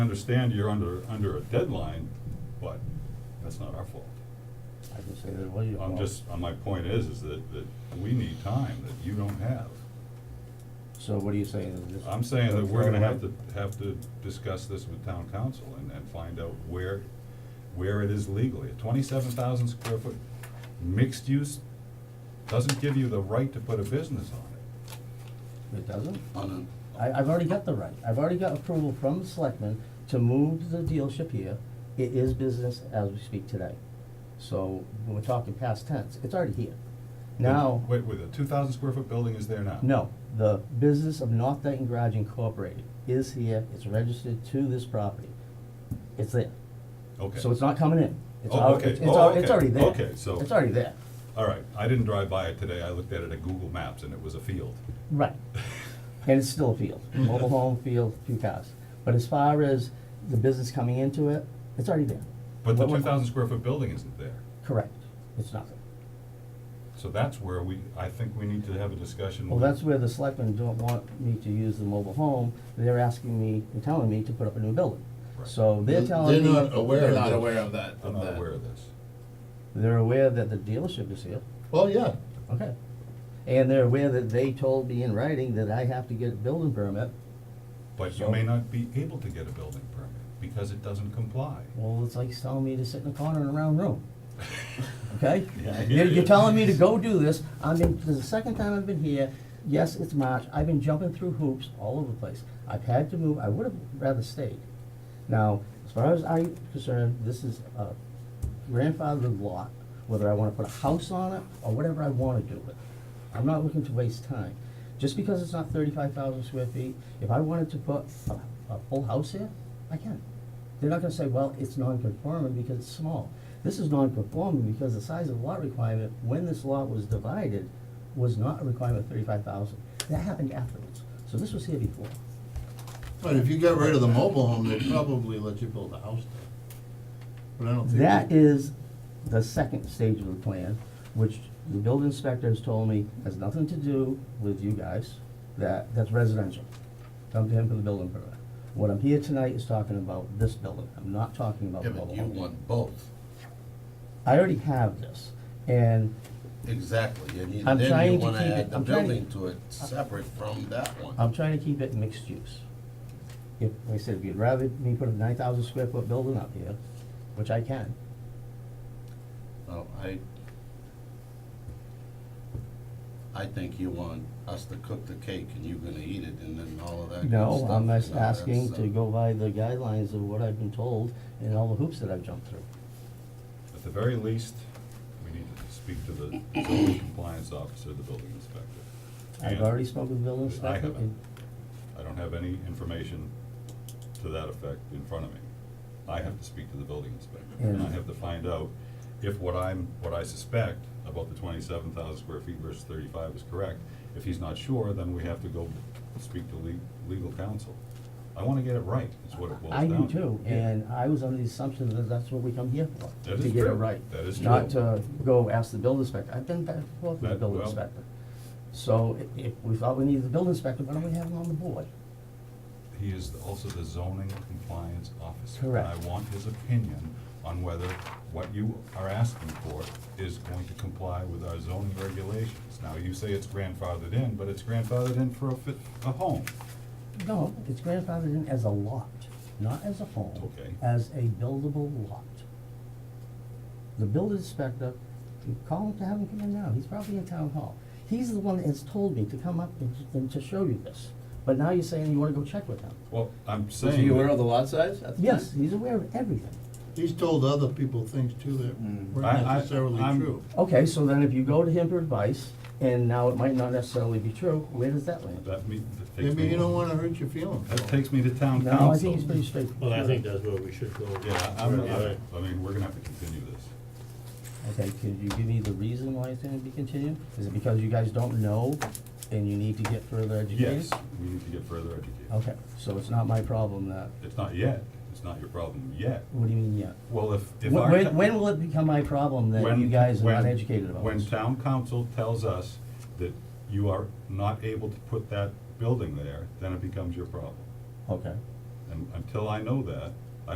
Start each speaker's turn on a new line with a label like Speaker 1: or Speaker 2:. Speaker 1: understand you're under, under a deadline, but that's not our fault.
Speaker 2: I can say that it was your
Speaker 1: I'm
Speaker 2: fault.
Speaker 1: just, uh, my point is, is that, that we need time that you don't have.
Speaker 2: So what are you saying, that this?
Speaker 1: I'm saying that
Speaker 2: don't
Speaker 1: we're
Speaker 2: throw it
Speaker 1: gonna have
Speaker 2: away?
Speaker 1: to, have to discuss this with town council and, and find out where, where it is legally. A twenty-seven thousand square foot mixed use doesn't give you the right to put a business on it.
Speaker 2: It doesn't?
Speaker 3: on
Speaker 2: I, I've already got the right, I've already got approval from the selectmen to move the dealership here. It is business as we speak today. So we're talking past tense, it's already here. Now,
Speaker 1: Wait, wait, the two thousand square foot building is there now?
Speaker 2: no, the business of North Dayton Garage Incorporated is here, it's registered to this property. It's there,
Speaker 1: Okay.
Speaker 2: so it's not coming in. It's
Speaker 1: Oh,
Speaker 2: al-
Speaker 1: okay.
Speaker 2: it's- it's
Speaker 1: Oh,
Speaker 2: al- It's
Speaker 1: okay.
Speaker 2: already there.
Speaker 1: Okay, so-
Speaker 2: It's already there,
Speaker 1: All right, I didn't drive by it today, I looked at it at Google Maps and it was a field.
Speaker 2: right. And it's still a field,
Speaker 1: Mm-hmm.
Speaker 2: mobile home, field, few cars. But as far as the business coming into it, it's already there.
Speaker 1: But the
Speaker 2: What- what-
Speaker 1: two thousand square foot building isn't there,
Speaker 2: Correct, it's nothing.
Speaker 1: so that's where we, I think we need to have a discussion.
Speaker 2: Well,
Speaker 1: with-
Speaker 2: that's where the selectmen don't want me to use the mobile home, they're asking me, and telling me to put up a new building.
Speaker 1: Right.
Speaker 2: So they're
Speaker 3: They're-
Speaker 2: telling me.
Speaker 3: they're not aware
Speaker 2: they're
Speaker 3: of
Speaker 2: not
Speaker 3: that.
Speaker 2: aware-
Speaker 3: of that,
Speaker 1: I'm
Speaker 3: of
Speaker 1: not
Speaker 3: that.
Speaker 1: aware of this.
Speaker 2: They're aware that the dealership is here,
Speaker 3: Well, yeah,
Speaker 2: okay. And they're aware that they told me in writing that I have to get a building permit,
Speaker 1: But you
Speaker 2: So-
Speaker 1: may not be able to get a building permit because it doesn't comply.
Speaker 2: well, it's like telling me to sit in a corner in a round room. Okay?
Speaker 1: Yeah, I hear
Speaker 2: You're, you're
Speaker 1: you.
Speaker 2: telling me to go do this, I mean, this is the second time I've been here, yes, it's March, I've been jumping through hoops all over the place. I've had to move, I would have rather stayed. Now, as far as I'm concerned, this is a grandfathered lot, whether I wanna put a house on it or whatever I wanna do with it. I'm not looking to waste time. Just because it's not thirty-five thousand square feet, if I wanted to put a, a full house here, I can. They're not gonna say, well, it's non-conforming because it's small. This is non-conforming because the size of lot requirement, when this lot was divided, was not a requirement of thirty-five thousand. That happened afterwards, so this was here before.
Speaker 3: but if you get rid of the mobile home, they'd probably let you build a house there. But I don't think.
Speaker 2: That
Speaker 3: they-
Speaker 2: is the second stage of the plan, which the building inspector has told me has nothing to do with you guys, that, that's residential. Come to him for the building permit. What I'm here tonight is talking about this building, I'm not talking about
Speaker 3: Yeah,
Speaker 2: the
Speaker 3: but
Speaker 2: mobile
Speaker 3: you
Speaker 2: home.
Speaker 3: want both,
Speaker 2: I already have this, and
Speaker 3: exactly, and you-
Speaker 2: I'm
Speaker 3: then
Speaker 2: trying
Speaker 3: you
Speaker 2: to
Speaker 3: wanna
Speaker 2: keep it-
Speaker 3: add the
Speaker 2: I'm trying to-
Speaker 3: building to it separate from that one.
Speaker 2: I'm trying to keep it mixed use. If, like I said, if you'd rather me put a nine thousand square foot building up here, which I can,
Speaker 3: Well, I, I think you want us to cook the cake and you're gonna eat it and then all of that good
Speaker 2: no, I'm just
Speaker 3: stuff, you know, that's,
Speaker 2: asking
Speaker 3: uh,
Speaker 2: to go by the guidelines of what I've been told and all the hoops that I've jumped through.
Speaker 1: At the very least, we need to speak to the zoning compliance officer, the building inspector.
Speaker 2: I've
Speaker 1: And
Speaker 2: already spoken with the building
Speaker 1: I
Speaker 2: inspector.
Speaker 1: haven't. I don't have any information to that effect in front of me. I have to speak to the building inspector, and I
Speaker 2: Yeah.
Speaker 1: have to find out if what I'm, what I suspect about the twenty-seven thousand square feet versus thirty-five is correct. If he's not sure, then we have to go speak to le- legal counsel. I wanna get it right, is what it boils
Speaker 2: I
Speaker 1: down to.
Speaker 2: do too, and I was under the assumption that that's what we come here for,
Speaker 1: That
Speaker 2: to
Speaker 1: is
Speaker 2: get it
Speaker 1: true.
Speaker 2: right.
Speaker 1: That is
Speaker 2: Not
Speaker 1: true.
Speaker 2: to go ask the building inspector, I've been back and forth with the
Speaker 1: That-
Speaker 2: building
Speaker 1: well-
Speaker 2: inspector. So i- if we thought we needed the building inspector, why don't we have him on the board?
Speaker 1: He is also the zoning compliance officer.
Speaker 2: Correct.
Speaker 1: And I want his opinion on whether what you are asking for is going to comply with our zoning regulations. Now, you say it's grandfathered in, but it's grandfathered in for a fit, a home.
Speaker 2: No, it's grandfathered in as a lot, not as a home.
Speaker 1: Okay.
Speaker 2: As a buildable lot. The building inspector, you call him to have him come in now, he's probably in town hall. He's the one that has told me to come up and, to- and to show you this, but now you're saying you wanna go check with him.
Speaker 1: Well, I'm saying.
Speaker 4: Was he aware
Speaker 1: that-
Speaker 4: of the lot size at the time?
Speaker 2: Yes, he's aware of everything.
Speaker 3: He's told other people things too that
Speaker 4: Mm.
Speaker 3: weren't
Speaker 1: I- I-
Speaker 3: necessarily
Speaker 1: I'm-
Speaker 3: true.
Speaker 2: Okay, so then if you go to him for advice, and now it might not necessarily be true, where does that land?
Speaker 1: That me, that takes
Speaker 3: Maybe
Speaker 1: me.
Speaker 3: you don't wanna hurt your feelings.
Speaker 1: That takes me to town council.
Speaker 2: No, I think it's pretty straightforward.
Speaker 5: Well, I think that's where we should go.
Speaker 1: Yeah, I'm,
Speaker 5: Right, right.
Speaker 1: I, I mean, we're gonna have to continue this.
Speaker 2: Okay, could you give me the reason why it's gonna be continued? Is it because you guys don't know and you Oh. need to get further educated?
Speaker 1: Yes, we need to get further educated.
Speaker 2: Okay, so it's not my problem that,
Speaker 1: It's not yet, it's not your problem yet.
Speaker 2: what do you mean yet?
Speaker 1: Well, if, if our.
Speaker 2: When,
Speaker 1: ta-
Speaker 2: when- when will it become my problem that you
Speaker 1: When-
Speaker 2: guys are not
Speaker 1: when-
Speaker 2: educated about
Speaker 1: When
Speaker 2: this?
Speaker 1: town council tells us that you are not able to put that building there, then it becomes your problem.
Speaker 2: Okay,
Speaker 1: And until I know that,